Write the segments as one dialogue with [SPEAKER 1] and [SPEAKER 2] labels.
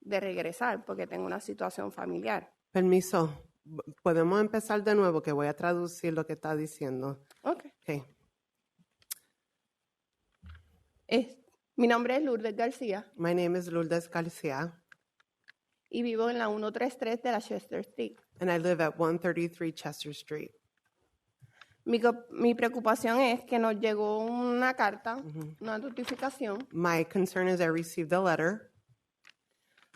[SPEAKER 1] de regresar porque tengo una situación familiar.
[SPEAKER 2] Permiso, podemos empezar de nuevo que voy a traducir lo que está diciendo.
[SPEAKER 1] Ok.
[SPEAKER 2] Ok.
[SPEAKER 1] Es- mi nombre es Lourdes García
[SPEAKER 2] My name is Lourdes Garcia,
[SPEAKER 1] y vivo en la 133 de la Chester Street.
[SPEAKER 2] and I live at 133 Chester Street.
[SPEAKER 1] Mi, co- mi preocupación es que nos llegó una carta, una notificación,
[SPEAKER 2] My concern is I received a letter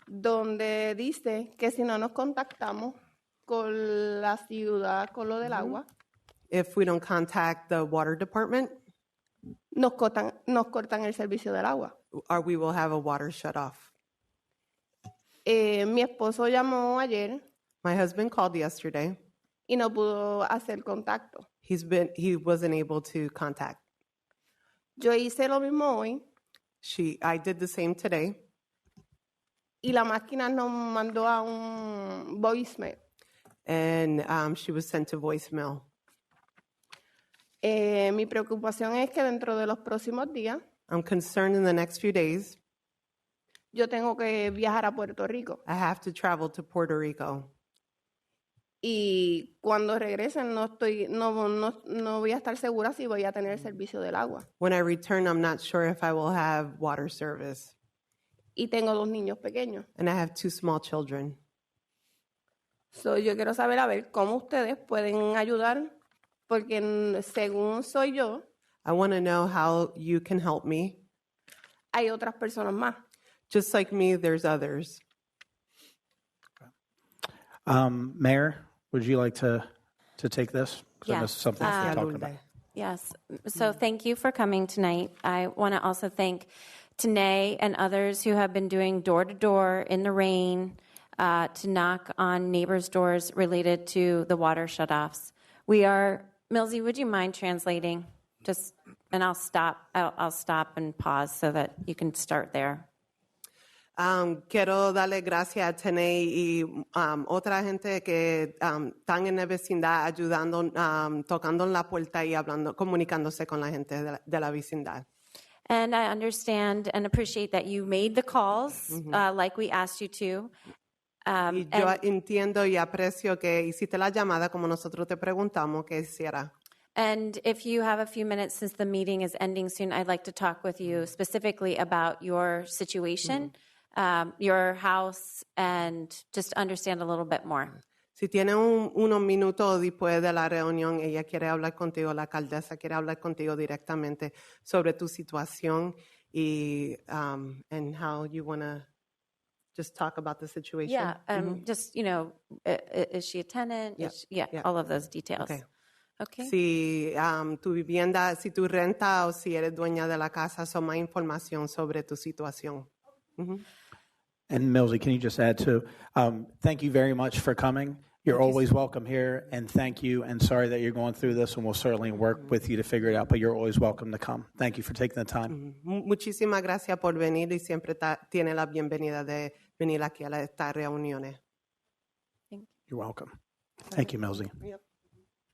[SPEAKER 1] donde dice que si no nos contactamos con la ciudad, con lo del agua,
[SPEAKER 2] if we don't contact the water department,
[SPEAKER 1] nos cortan, nos cortan el servicio del agua.
[SPEAKER 2] or uh, we will have a water shut off.
[SPEAKER 1] Eh, mi esposo llamó ayer
[SPEAKER 2] My husband called yesterday.
[SPEAKER 1] y no pudo hacer contacto.
[SPEAKER 2] He's been he wasn't able to contact.
[SPEAKER 1] Yo hice lo mismo hoy
[SPEAKER 2] She I did the same today,
[SPEAKER 1] y la máquina nos mandó a un voicemail.
[SPEAKER 2] and um, she was sent to voicemail.
[SPEAKER 1] Eh, mi preocupación es que dentro de los próximos días
[SPEAKER 2] I'm concerned in the next few days.
[SPEAKER 1] yo tengo que viajar a Puerto Rico
[SPEAKER 2] I have to travel to Puerto Rico.
[SPEAKER 1] y cuando regresen no estoy no, no, no voy a estar segura si voy a tener el servicio del agua
[SPEAKER 2] When I return, I'm not sure if I will have water service.
[SPEAKER 1] y tengo dos niños pequeños.
[SPEAKER 2] And I have two small children.
[SPEAKER 1] So, yo quiero saber a ver cómo ustedes pueden ayudar porque mm, según soy yo
[SPEAKER 2] I want to know how you can help me.
[SPEAKER 1] hay otras personas más.
[SPEAKER 2] Just like me, there's others.
[SPEAKER 3] Um, Mayor, would you like to, to take this? 'Cause I know
[SPEAKER 4] Yeah. Um,
[SPEAKER 3] this is something we've been talking about.
[SPEAKER 4] Yes. So thank you for coming tonight. I want to also thank Tanae and others who have been doing door to door in the rain uh, to knock on neighbors' doors related to the water shutoffs. We are, Milsey, would you mind translating? Just, and I'll stop, I'll, I'll stop and pause so that you can start there.
[SPEAKER 2] Um, quiero darle gracias a Tene y um, otra gente que um, están en la vecindad ayudando, um, tocando en la puerta y hablando, comunicándose con la gente de la, de la vecindad.
[SPEAKER 4] And I understand and appreciate that you made the calls uh, like we asked you to. Um,
[SPEAKER 2] Y yo
[SPEAKER 4] and-
[SPEAKER 2] entiendo y aprecio que hiciste la llamada como nosotros te preguntamos que hiciera.
[SPEAKER 4] And if you have a few minutes since the meeting is ending soon, I'd like to talk with you specifically about your situation, um, your house, and just understand a little bit more.
[SPEAKER 2] Si tiene un- unos minutos después de la reunión, ella quiere hablar contigo, la alcaldesa quiere hablar contigo directamente sobre tu situación y um, and how you want to just talk about the situation.
[SPEAKER 4] Yeah, um, just, you know, i- i- is she a tenant?
[SPEAKER 2] Mm-hmm. Yeah,
[SPEAKER 4] Is she- yeah,
[SPEAKER 2] yeah.
[SPEAKER 4] all of those details.
[SPEAKER 2] Okay.
[SPEAKER 4] Okay.
[SPEAKER 2] Si um, tu vivienda, si tu renta o si eres dueña de la casa, son más información sobre tu situación.
[SPEAKER 3] And Millsy, can you just add to, um, thank you very much for coming. You're always welcome here, and thank you, and sorry that you're going through this, and we'll certainly
[SPEAKER 4] Mm-hmm.
[SPEAKER 3] work with you to figure it out, but you're always welcome to come. Thank you for taking the
[SPEAKER 4] Mm-hmm.
[SPEAKER 3] time.
[SPEAKER 2] Mu- Muchísimas gracias por venir y siempre ta- tiene la bienvenida de venir aquí a la- estas reuniones.
[SPEAKER 3] You're welcome. Thank you, Millsy.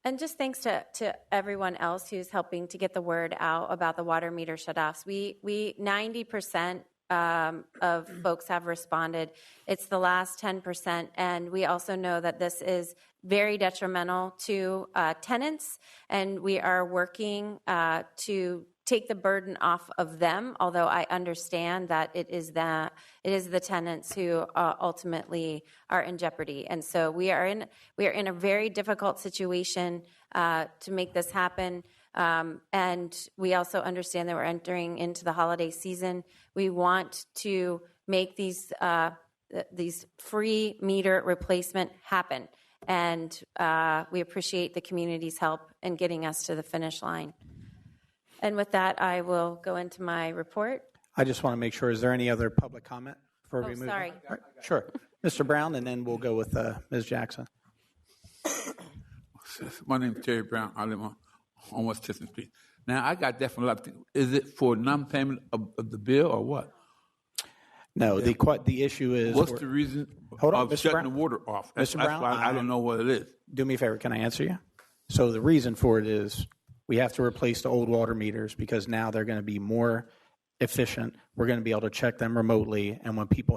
[SPEAKER 4] And just thanks to, to everyone else who's helping to get the word out about the water meter shutoffs. We we ninety percent um, of folks have responded. It's the last ten percent, and we also know that this is very detrimental to uh, tenants, and we are working uh, to take the burden off of them. Although I understand that it is the it is the tenants who uh, ultimately are in jeopardy, and so we are in we are in a very difficult situation uh, to make this happen. Um, and we also understand that we're entering into the holiday season. We want to make these uh, th- these free meter replacement happen. And uh, we appreciate the community's help in getting us to the finish line. And with that, I will go into my report.
[SPEAKER 3] I just want to make sure, is there any other public comment before we
[SPEAKER 4] Oh,
[SPEAKER 3] move? on?
[SPEAKER 4] sorry.
[SPEAKER 3] All right, Sure. Mr. Brown, and then we'll go with uh, Ms. Jackson.
[SPEAKER 5] My name's Terry Brown. I live on almost Chestnut Street. Now I got that from a lot of people. Is it for non-payment of, of the bill or what?
[SPEAKER 3] No, the, que- the issue is.
[SPEAKER 5] What's the reason
[SPEAKER 3] Hold on,
[SPEAKER 5] of
[SPEAKER 3] Mr.
[SPEAKER 5] shutting
[SPEAKER 3] Brown.
[SPEAKER 5] the water off? That's,
[SPEAKER 3] Mr.
[SPEAKER 5] that's
[SPEAKER 3] Brown,
[SPEAKER 5] why I,
[SPEAKER 3] I'm-
[SPEAKER 5] don't know what it is.
[SPEAKER 3] do me a favor, can I answer you? So the reason for it is we have to replace the old water meters because now they're going to be more efficient. We're going to be able to check them remotely, and when people